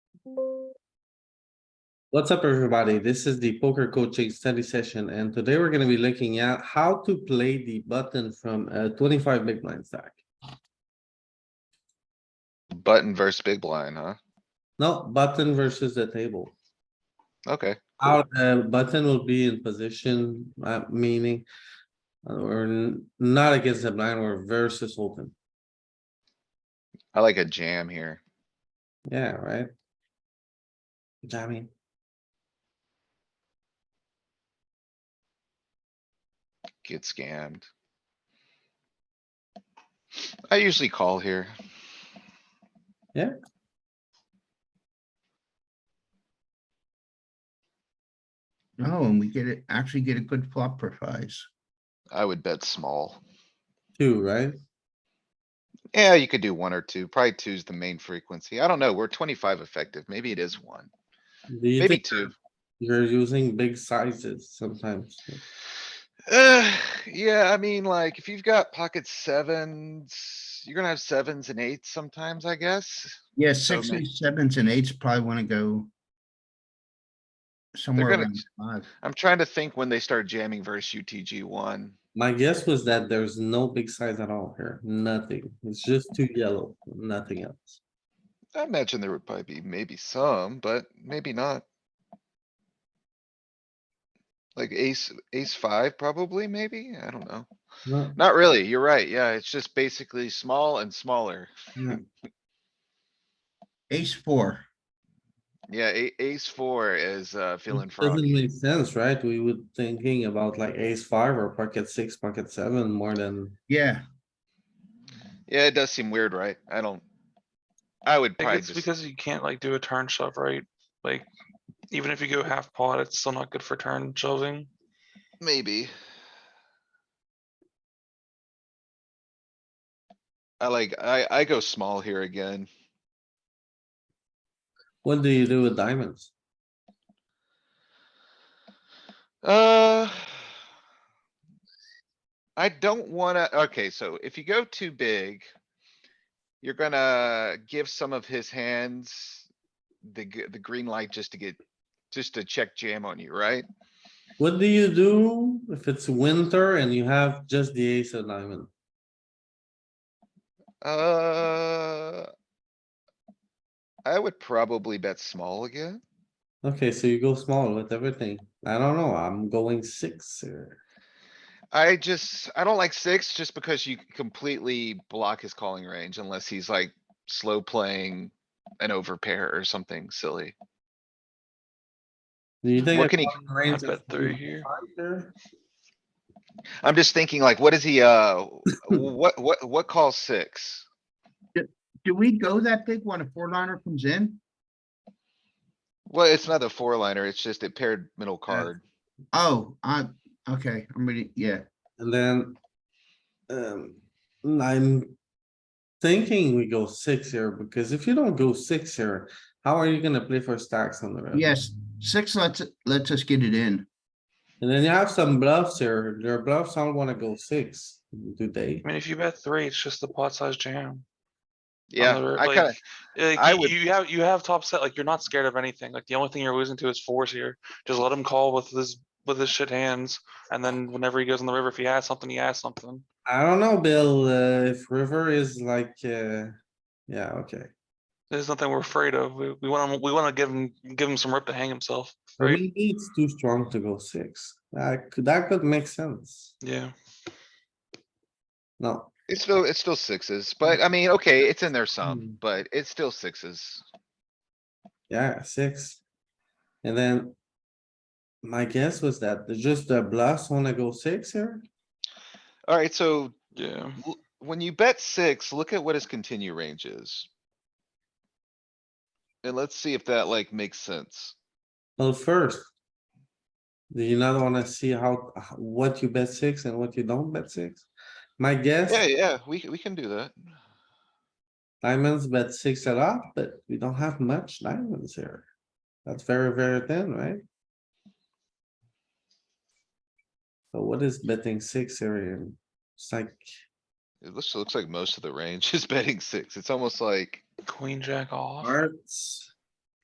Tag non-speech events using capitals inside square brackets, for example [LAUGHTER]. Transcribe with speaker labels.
Speaker 1: What's up, everybody? This is the poker coaching study session, and today we're gonna be looking at how to play the button from a twenty-five big blind stack.
Speaker 2: Button versus big blind, huh?
Speaker 1: No, button versus the table.
Speaker 2: Okay,
Speaker 1: How the button will be in position, uh, meaning uh, we're n- not against the blind, we're versus open.
Speaker 2: I like a jam here.
Speaker 1: Yeah, right? Jamming.
Speaker 2: Get scammed. I usually call here.
Speaker 1: Yeah.
Speaker 2: Mm-hmm.
Speaker 3: Oh, and we get it, actually get a good flop for fives.
Speaker 2: I would bet small.
Speaker 1: Two, right?
Speaker 2: Yeah, you could do one or two. Probably two's the main frequency. I don't know. We're twenty-five effective. Maybe it is one,
Speaker 1: Do you
Speaker 2: maybe
Speaker 1: think
Speaker 2: two. [SIGHS]
Speaker 1: you're using big sizes sometimes?
Speaker 2: Uh, yeah, I mean, like, if you've got pocket sevens, you're gonna have sevens and eights sometimes, I guess.
Speaker 3: Yeah,
Speaker 2: So ma-
Speaker 3: sixes, sevens and eights probably wanna go. Somewhere
Speaker 2: gonna
Speaker 3: around
Speaker 2: ch-
Speaker 3: five.
Speaker 2: I'm trying to think when they start jamming versus UTG one.
Speaker 1: My guess was that there's no big size at all here, nothing. It's just two yellow, nothing else.
Speaker 2: I imagine there would probably be maybe some, but maybe not. Like ace, ace five probably, maybe? I don't know.
Speaker 1: No,
Speaker 2: Not really. You're right. Yeah, it's just basically small and smaller.
Speaker 1: yeah.
Speaker 3: Ace four,
Speaker 2: Yeah, a- ace four is, uh, feeling
Speaker 1: It Doesn't
Speaker 2: froggy.
Speaker 1: make sense, right? We would thinking about like ace five or pocket six, pocket seven more than,
Speaker 3: yeah,
Speaker 2: Yeah, it does seem weird, right? I don't. I would
Speaker 4: I think
Speaker 2: probably
Speaker 4: it's
Speaker 2: just,
Speaker 4: because you can't like do a turn shove, right? Like, even if you go half pot, it's still not good for turn shoving.
Speaker 2: maybe. I like, I, I go small here again.
Speaker 1: what do you do with diamonds?
Speaker 2: Uh. I don't wanna, okay, so if you go too big. You're gonna give some of his hands the, g- the green light just to get, just to check jam on you, right?
Speaker 1: What do you do if it's winter and you have just the ace of diamond?
Speaker 2: Uh. I would probably bet small again.
Speaker 1: Okay, so you go small with everything. I don't know, I'm going six here.
Speaker 2: I just, I don't like six just because you completely block his calling range unless he's like slow playing. An overpair or something silly.
Speaker 1: Do you think?
Speaker 2: What
Speaker 1: a
Speaker 2: can he-
Speaker 1: calling
Speaker 4: I
Speaker 1: range
Speaker 4: bet
Speaker 1: of
Speaker 4: three here.
Speaker 1: five here?
Speaker 2: I'm just thinking like, what is he, uh, what, what, what calls six?
Speaker 3: do we go that big when a four liner comes in?
Speaker 2: Well, it's not the four liner, it's just it paired middle card.
Speaker 3: Oh, I, okay, I'm ready, yeah,
Speaker 1: And then, um, I'm thinking we go six here, because if you don't go six here, how are you gonna play for stacks on the
Speaker 2: Uh,
Speaker 1: river?
Speaker 3: yes, six lets, lets us get it in.
Speaker 1: And then you have some bluffs here, your bluffs all wanna go six, do they?
Speaker 4: I mean, if you bet three, it's just the pot size jam. on the
Speaker 2: Yeah,
Speaker 4: river,
Speaker 2: I
Speaker 4: like-
Speaker 2: kinda,
Speaker 4: Like,
Speaker 2: I
Speaker 4: you-
Speaker 2: would-
Speaker 4: You have, you have top set, like, you're not scared of anything. Like, the only thing you're losing to is fours here. Just let him call with his, with his shit hands. And then whenever he goes on the river, if he has something, he has something.
Speaker 1: I don't know, Bill, uh, if river is like, uh, yeah, okay.
Speaker 4: There's nothing we're afraid of. We, we want him, we want to give him, give him some rip to hang himself,
Speaker 1: Or
Speaker 4: right?
Speaker 1: Maybe it's too strong to go six, that could, that could make sense,
Speaker 4: Yeah.
Speaker 1: no.
Speaker 2: it's still, it's still sixes, but I mean, okay, it's in there
Speaker 1: Hmm.
Speaker 2: some, but it's still sixes.
Speaker 1: Yeah, six. And then. My guess was that the- just the bluffs wanna go six here.
Speaker 2: Alright, so
Speaker 4: Yeah.
Speaker 2: l- when you bet six, look at what his continue range is. And let's see if that like makes sense.
Speaker 1: Well, first. Do you not wanna see how, h- what you bet six and what you don't bet six? My guess,
Speaker 2: Yeah, yeah, we, c- we can do that.
Speaker 1: diamonds bet six a lot, but we don't have much diamonds here. That's very, very thin, right? So what is betting six here? It's like,
Speaker 2: It [LAUGHS] looks, looks like most of the range is betting six. It's almost like,
Speaker 4: Queen jack off.
Speaker 1: hearts.